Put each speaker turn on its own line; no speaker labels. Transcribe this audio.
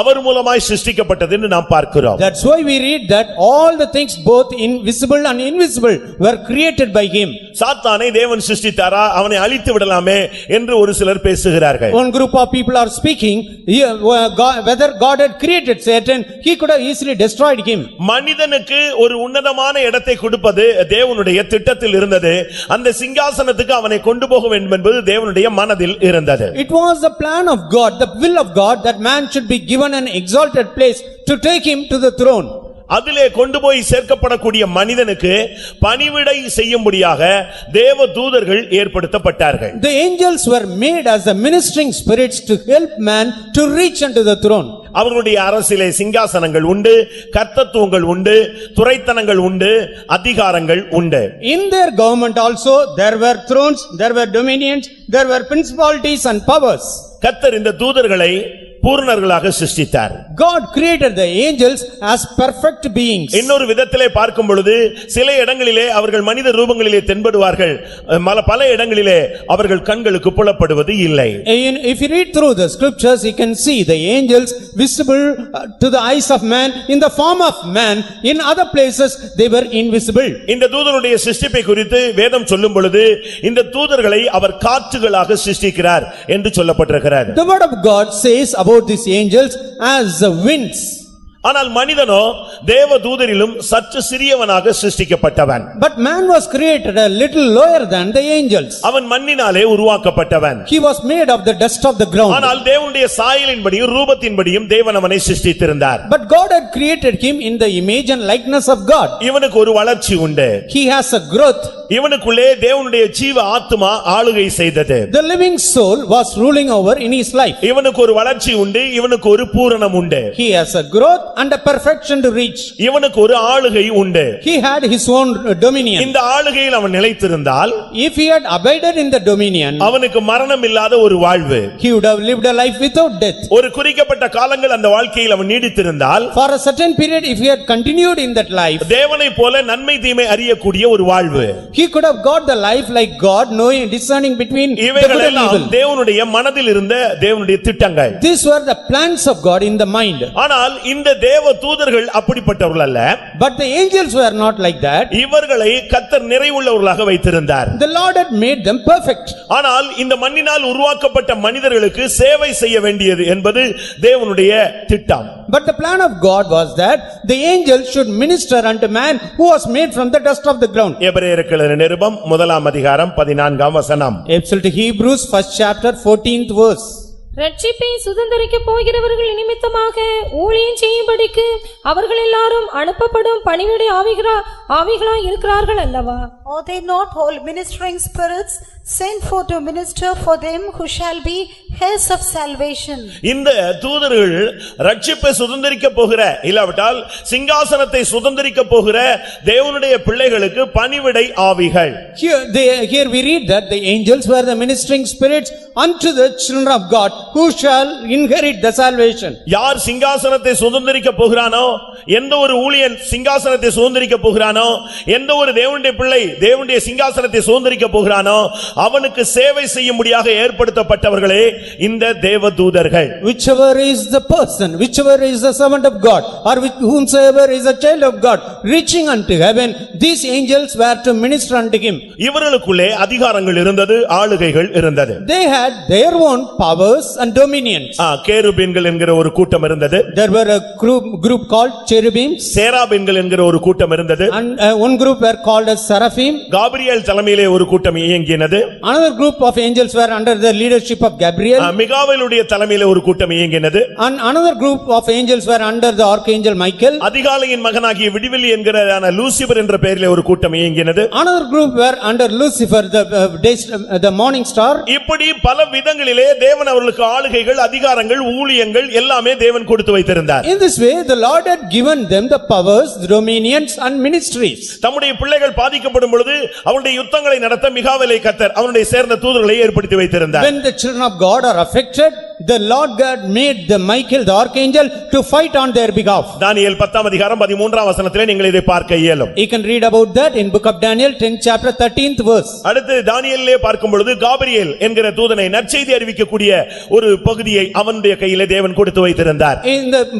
அவர் மூலமாய் சிருஷ்டிக்கப்பட்டது என்று நாம் பார்க்கிறோம்
That's why we read that all the things both invisible and invisible were created by him.
சாத்தானை தேவன் சிருஷ்டித்தாரா அவனை அழித்து விடலாமே என்று ஒரு சிலர் பேசுகிறார்கள்
One group of people are speaking, "Yeah, wh- God- whether God had created Satan, he could have easily destroyed him.
மனிதனுக்கு ஒரு உன்னதமான இடத்தை கொடுப்பது தேவனுடைய திட்டத்தில் இருந்தது அந்த சிங்காசனத்துக்கு அவனை கொண்டு போக வேண்டும் என்பது தேவனுடைய மனதில் இருந்தது
It was the plan of God, the will of God, that man should be given an exalted place to take him to the throne.
அதிலே கொண்டு போய் சேர்க்கப்படக்கூடிய மனிதனுக்கு பணிவிடை செய்யும்படியாக தேவ தூதர்கள் ஏற்படுத்தப்பட்டார்கள்
The angels were made as the ministering spirits to help man to reach unto the throne.
அவர்களுடைய அரசிலே சிங்காசனங்கள் உண்டு கர்த்தத்துவங்கள் உண்டு துரைத்தனங்கள் உண்டு அதிகாரங்கள் உண்டு
In their government also, there were thrones, there were dominions, there were principalities and powers.
கர்த்தர் இந்த தூதர்களை பூரணர்களாக சிருஷ்டித்தார்
God created the angels as perfect beings.
இன்னொரு விதத்திலே பார்க்கும் பொழுது சில இடங்களிலே அவர்கள் மனித ரூபங்களிலே தென்படுவார்கள் மல பல இடங்களிலே அவர்கள் கண்களுக்கு புலப்படுவது இல்லை
In- If you read through the scriptures, you can see the angels visible uh, to the eyes of man in the form of man. In other places, they were invisible.
இந்த தூதருடைய சிருஷ்டிப்பை குறித்து வேதம் சொல்லும் பொழுது இந்த தூதர்களை அவர் காற்றுகளாக சிருஷ்டிக்கிறார் என்று சொல்லப்பட்டிருக்கிறார்
The word of God says about these angels as the winds.
ஆனால் மனிதனோ தேவ தூதரிலும் சற்று சிறியவனாக சிருஷ்டிக்கப்பட்டவன்
But man was created a little lower than the angels.
அவன் மண்ணினாலே உருவாக்கப்பட்டவன்
He was made of the dust of the ground.
ஆனால் தேவனுடைய சாயலின்படியும் ரூபத்தின்படியும் தேவன் அவனை சிருஷ்டித்திருந்தார்
But God had created him in the image and likeness of God.
இவனுக்கு ஒரு வளர்ச்சி உண்டு
He has a growth.
இவனுக்குள்ளே தேவனுடைய ஜீவ ஆத்துமா ஆளுகை செய்தது
The living soul was ruling over in his life.
இவனுக்கு ஒரு வளர்ச்சி உண்டு இவனுக்கு ஒரு பூரணம் உண்டு
He has a growth and a perfection to reach.
இவனுக்கு ஒரு ஆளுகை உண்டு
He had his own uh, dominion.
இந்த ஆளுகையில் அவன் நிலைத்திருந்தால்
If he had abided in the dominion,
அவனுக்கு மரணம் இல்லாத ஒரு வாழ்வு
he would have lived a life without death.
ஒரு குறிக்கப்பட்ட காலங்கள் அந்த வாழ்க்கையில் அவன் நீடித்திருந்தால்
For a certain period, if he had continued in that life,
தேவனைப் போல நன்மை தீமை அறியக்கூடிய ஒரு வாழ்வு
he could have got the life like God, knowing, discerning between the good and
இவைகளெல்லாம்
evil.
தேவனுடைய மனதில் இருந்த தேவனுடைய திட்டங்கள்
These were the plans of God in the mind.
ஆனால் இந்த தேவ தூதர்கள் அப்படிப்பட்டவர்கள் அல்ல
But the angels were not like that.
இவர்களை கத்தர் நிறைவுள்ளவர்களாக வைத்திருந்தார்
The Lord had made them perfect.
ஆனால் இந்த மண்ணினால் உருவாக்கப்பட்ட மனிதர்களுக்கு சேவை செய்ய வேண்டியது என்பது தேவனுடைய திட்டம்
But the plan of God was that the angel should minister unto man who was made from the dust of the ground.
எபிரேயருக்கு நிருபம் முதலாம் அதிகாரம் பதினான்காம் வசனம்
Epistle to Hebrews, first chapter, fourteenth verse.
ரட்சிப்பை சுதந்தரிக்கப் போகிறவர்கள் நிமித்தமாக ஊழியம் செய்யும்படிக்கு அவர்கள் எல்லாரும் அனுப்பப்படும் பணிவிடை ஆவிகளா ஆவிகளா இருக்கிறார்கள் அல்லவா
Are they not all ministering spirits sent for to minister for them who shall be heirs of salvation?
இந்த தூதர்கள் ரட்சிப்பை சுதந்தரிக்க போகிற இல்லாவிட்டால் சிங்காசனத்தை சுதந்தரிக்க போகிற தேவனுடைய பிள்ளைகளுக்கு பணிவிடை ஆவிகள்
Here, they, here we read that the angels were the ministering spirits unto the children of God who shall inherit the salvation.
யார் சிங்காசனத்தை சுதந்தரிக்க போகிறானோ எந்த ஒரு ஊழியன் சிங்காசனத்தை சுதந்தரிக்க போகிறானோ எந்த ஒரு தேவனுடைய பிள்ளை தேவனுடைய சிங்காசனத்தை சுதந்தரிக்க போகிறானோ அவனுக்கு சேவை செய்யும்படியாக ஏற்படுத்தப்பட்டவர்களே இந்த தேவ தூதர்கள்
Whichever is the person, whichever is the servant of God, or which- whomsoever is a child of God, reaching unto heaven, these angels were to minister unto him.
இவர்களுக்குள்ளே அதிகாரங்கள் இருந்தது ஆளுகைகள் இருந்தது
They had their own powers and dominions.
ஆ, கேருபீன்கள் என்கிற ஒரு கூட்டம் இருந்தது
There were a group, group called cherubims
சேராபீன்கள் என்கிற ஒரு கூட்டம் இருந்தது
and uh, one group were called as seraphim.
Gabriel தலைமையிலே ஒரு கூட்டம் இயங்கினது
Another group of angels were under the leadership of
ah,
Gabriel
மிகாவேலுடைய தலைமையிலே ஒரு கூட்டம் இயங்கினது
and another group of angels were under the archangel Michael.
அதிகாலையின் மகனாகிய விடிவெளி என்கிறதான லூசிபர் என்ற பெயரிலே ஒரு கூட்டம் இயங்கினது
Another group were under Lucifer, the uh, day- uh, the morning star.
இப்படி பல விதங்களிலே தேவன் அவர்களுக்கு ஆளுகைகள் அதிகாரங்கள் ஊழியங்கள் எல்லாமே தேவன் கொடுத்து வைத்திருந்தார்
In this way, the Lord had given them the powers, dominions and ministries.
தம்முடைய பிள்ளைகள் பாதிக்கப்படும் பொழுது அவருடைய யுத்தங்களை நடத்த மிகாவிலை கத்தர் அவனுடைய சேர்ந்த தூதர்களை ஏற்படுத்தி வைத்திருந்தார்
When the children of God are affected, the Lord God made the Michael the archangel to fight on their behalf.
தானியேல் பத்தாம் அதிகாரம் பதிமூன்றாம் வசனத்திலே நீங்கள் இதை பார்க்க இயலும்
You can read about that in book of Daniel, 10th chapter, 13th verse.
அடுத்து தானியேலே பார்க்கும் பொழுது காபிரியேல் என்கிற தூதனை நற்செய்தி அறிவிக்கக்கூடிய ஒரு பகுதியை அவனுடைய கையிலே தேவன் கொடுத்து வைத்திருந்தார்
In the